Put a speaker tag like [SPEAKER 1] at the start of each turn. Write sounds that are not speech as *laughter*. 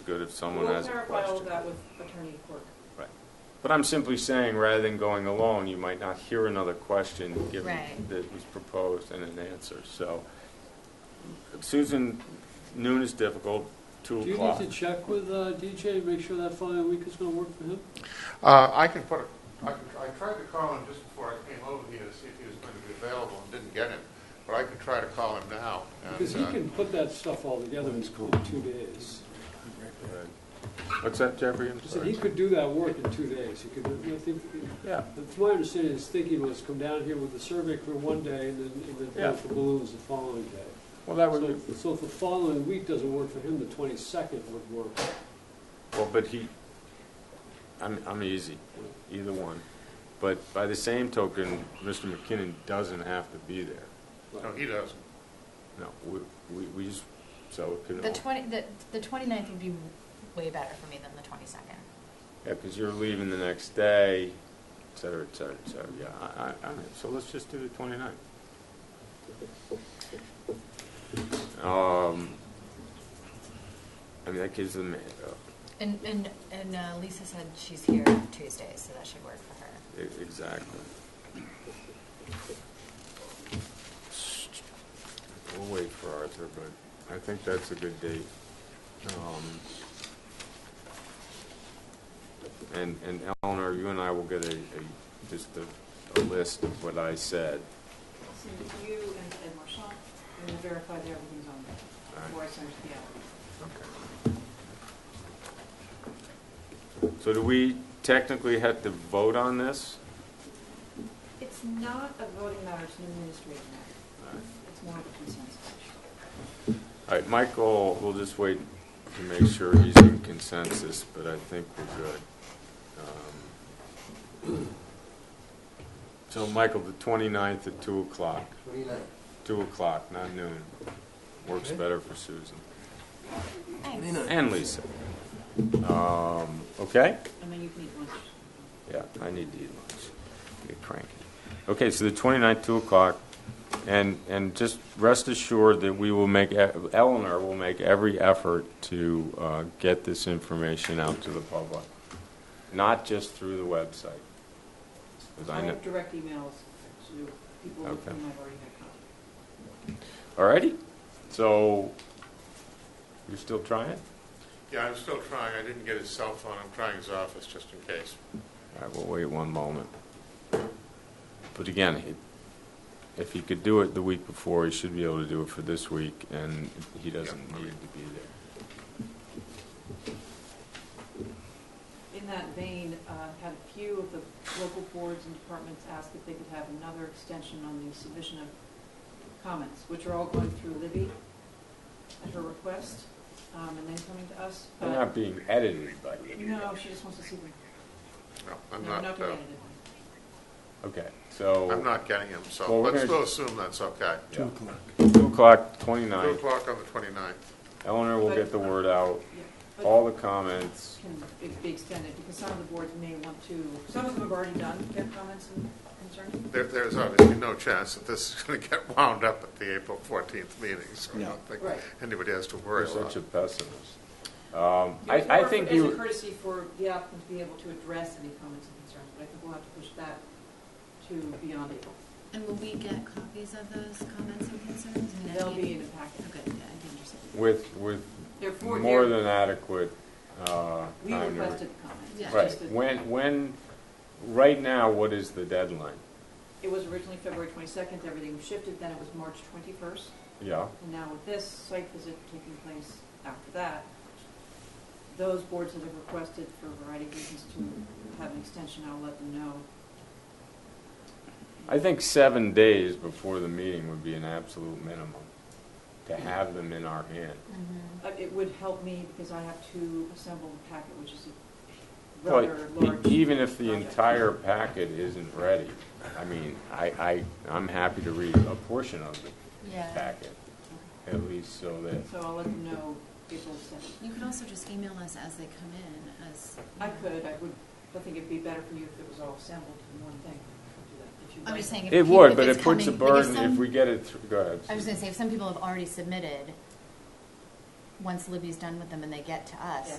[SPEAKER 1] good if someone
[SPEAKER 2] We'll
[SPEAKER 1] has a
[SPEAKER 2] clarify all of
[SPEAKER 1] question.
[SPEAKER 2] that with Attorney Quirk.
[SPEAKER 1] But I'm simply saying, rather than going alone, you might not hear another question given
[SPEAKER 3] Right.
[SPEAKER 1] that was proposed and an answer, so. Susan, noon is difficult, two
[SPEAKER 4] Do you
[SPEAKER 1] o'clock.
[SPEAKER 4] need to check with uh, DJ, make sure that following week is going to work for him?
[SPEAKER 5] Uh, I can put, a- I could- I tried to call him just before I came over here to see if he was going to be available and didn't get him, but I could try to call him now. and,
[SPEAKER 4] Because he
[SPEAKER 5] uh,
[SPEAKER 4] can put that stuff all together in two days.
[SPEAKER 1] What's that, Jeffrey? I'm
[SPEAKER 4] I said he
[SPEAKER 1] sorry.
[SPEAKER 4] could do that work in two days. He could, I think,
[SPEAKER 1] Yeah,
[SPEAKER 4] but my understanding, his thinking was come down here with the survey for one day and then, and then
[SPEAKER 1] Yeah.
[SPEAKER 4] vote for balloons the following day.
[SPEAKER 1] well, that would be,
[SPEAKER 4] So- So if the following week doesn't work for him, the twenty-second would work.
[SPEAKER 1] well, but he, I'm, I'm easy, either one. But by the same token, Mr. McKinnon doesn't have to be there.
[SPEAKER 5] No, he doesn't.
[SPEAKER 1] No, we, we, we just, so it could
[SPEAKER 3] The
[SPEAKER 1] all.
[SPEAKER 3] twenty, the, the twenty-ninth would be way better for me than the twenty-second.
[SPEAKER 1] Yeah, because you're leaving the next day, et cetera, et cetera, et cetera. Yeah, I, I, all right, so let's just do the 29th. Um, I mean, that gives them, uh,
[SPEAKER 3] And, and, and uh, Lisa said she's here Tuesday, so that should work for her.
[SPEAKER 1] e- exactly. We'll wait for Arthur, but I think that's a good date. Um, And, and Eleanor, you and I will get a, a, just a, a list of what I said.
[SPEAKER 2] I'll send it to you and Ed Marchand, and we'll verify that everything's on there,
[SPEAKER 1] All right,
[SPEAKER 2] before I send it to the applicant.
[SPEAKER 1] okay. So do we technically have to vote on this?
[SPEAKER 2] It's not a voting matter, it's an administrative matter.
[SPEAKER 1] All right.
[SPEAKER 2] It's more of a consensus issue.
[SPEAKER 1] All right, Michael, we'll just wait to make sure he's in consensus, but I think we're good. Um, So, Michael, the 29th at 2 o'clock, 2 o'clock, not noon, works better for Susan
[SPEAKER 3] Thanks.
[SPEAKER 1] and Lisa. Um, Okay?
[SPEAKER 2] And then you can eat lunch.
[SPEAKER 1] Yeah, I need to eat lunch. Get cranky. Okay, so the 29th, 2 o'clock, and, and just rest assured that we will make, e, Eleanor will make every effort to uh, get this information out to the public, not just through the website. 'Cause I
[SPEAKER 2] I
[SPEAKER 1] know-
[SPEAKER 2] have direct emails to people with
[SPEAKER 1] Okay.
[SPEAKER 2] whom I've already had contact.
[SPEAKER 1] Alrighty, so you're still trying?
[SPEAKER 5] Yeah, I'm still trying. I didn't get his cell phone. I'm trying his office just in case.
[SPEAKER 1] All right, we'll wait one moment. But again, he- if he could do it the week before, he should be able to do it for this week, and he doesn't need to be there.
[SPEAKER 2] In that vein, uh, had a few of the local boards and departments ask if they could have another extension on the submission of comments, which are all going through Libby at her request, um, and then coming to us.
[SPEAKER 1] They're
[SPEAKER 2] But
[SPEAKER 1] not being edited by you.
[SPEAKER 2] No, she just wants to see them.
[SPEAKER 5] No, I'm
[SPEAKER 2] No, not
[SPEAKER 5] not,
[SPEAKER 2] to
[SPEAKER 5] uh,
[SPEAKER 2] edit
[SPEAKER 1] Okay,
[SPEAKER 5] I'm
[SPEAKER 1] so,
[SPEAKER 5] not getting him, so
[SPEAKER 1] Well, we're
[SPEAKER 5] let's still
[SPEAKER 1] gonna-
[SPEAKER 5] assume that's okay.
[SPEAKER 1] Two o'clock. two o'clock,
[SPEAKER 5] 2
[SPEAKER 1] twenty-nine.
[SPEAKER 5] o'clock on the 29th.
[SPEAKER 1] Eleanor will get the word out,
[SPEAKER 2] it.
[SPEAKER 1] all the comments.
[SPEAKER 2] Can it be extended, because some of the boards may want to, some of them have already done their comments and concerns.
[SPEAKER 5] There, there's obviously no chance that this is going to *laughs* get wound up at the April 14th meeting, so I
[SPEAKER 6] No.
[SPEAKER 5] don't think
[SPEAKER 2] Right.
[SPEAKER 5] anybody has to
[SPEAKER 1] You're
[SPEAKER 5] worry about
[SPEAKER 1] such a
[SPEAKER 5] it.
[SPEAKER 1] pessimist. Um, I, I
[SPEAKER 2] Or
[SPEAKER 1] think
[SPEAKER 2] As a
[SPEAKER 1] you,
[SPEAKER 2] courtesy for the applicant to be able to address any comments and concerns, but I think we'll have to push that to beyond April.
[SPEAKER 3] And will we get copies of those comments and concerns?
[SPEAKER 2] They'll be in the packet.
[SPEAKER 3] Okay, yeah, I'd be interested.
[SPEAKER 1] with, with
[SPEAKER 2] They're for,
[SPEAKER 1] more
[SPEAKER 2] they're,
[SPEAKER 1] than adequate, uh,
[SPEAKER 2] we
[SPEAKER 1] time to.
[SPEAKER 2] requested the comments. It's
[SPEAKER 3] Yeah.
[SPEAKER 1] Right,
[SPEAKER 2] just that
[SPEAKER 1] when, when, right now, what is the deadline?
[SPEAKER 2] It was originally February twenty-second, everything shifted, then it was March twenty-first,
[SPEAKER 1] Yeah,
[SPEAKER 2] and now with this site visit taking place after that, those boards that have requested for a variety of reasons to have an extension, I'll let them know.
[SPEAKER 1] I think seven days before the meeting would be an absolute minimum to have them in our hand.
[SPEAKER 3] Mhm.
[SPEAKER 2] Uh, It would help me because I have to assemble the packet, which is a
[SPEAKER 1] But
[SPEAKER 2] rather
[SPEAKER 1] e-
[SPEAKER 2] large.
[SPEAKER 1] even if the
[SPEAKER 2] project.
[SPEAKER 1] entire packet isn't ready, I mean, I, I, I'm happy to read a portion of the
[SPEAKER 3] Yeah.
[SPEAKER 1] packet, at least so that,
[SPEAKER 2] So I'll let them know April seventh.
[SPEAKER 3] You could also just email us as they come in, as.
[SPEAKER 2] I could, I would, I think it'd be better for you if it was all assembled in one thing. I'll do that, if you'd
[SPEAKER 3] I'm
[SPEAKER 2] like.
[SPEAKER 3] just saying. if
[SPEAKER 1] it
[SPEAKER 3] people-
[SPEAKER 1] would,
[SPEAKER 3] if
[SPEAKER 1] but
[SPEAKER 3] it's
[SPEAKER 1] it puts a
[SPEAKER 3] coming- like,
[SPEAKER 1] burden if
[SPEAKER 3] some-
[SPEAKER 1] we get it through, go ahead.
[SPEAKER 3] I was gonna say, if some people have already submitted, once Libby's done with them and they get to us,
[SPEAKER 2] Yeah.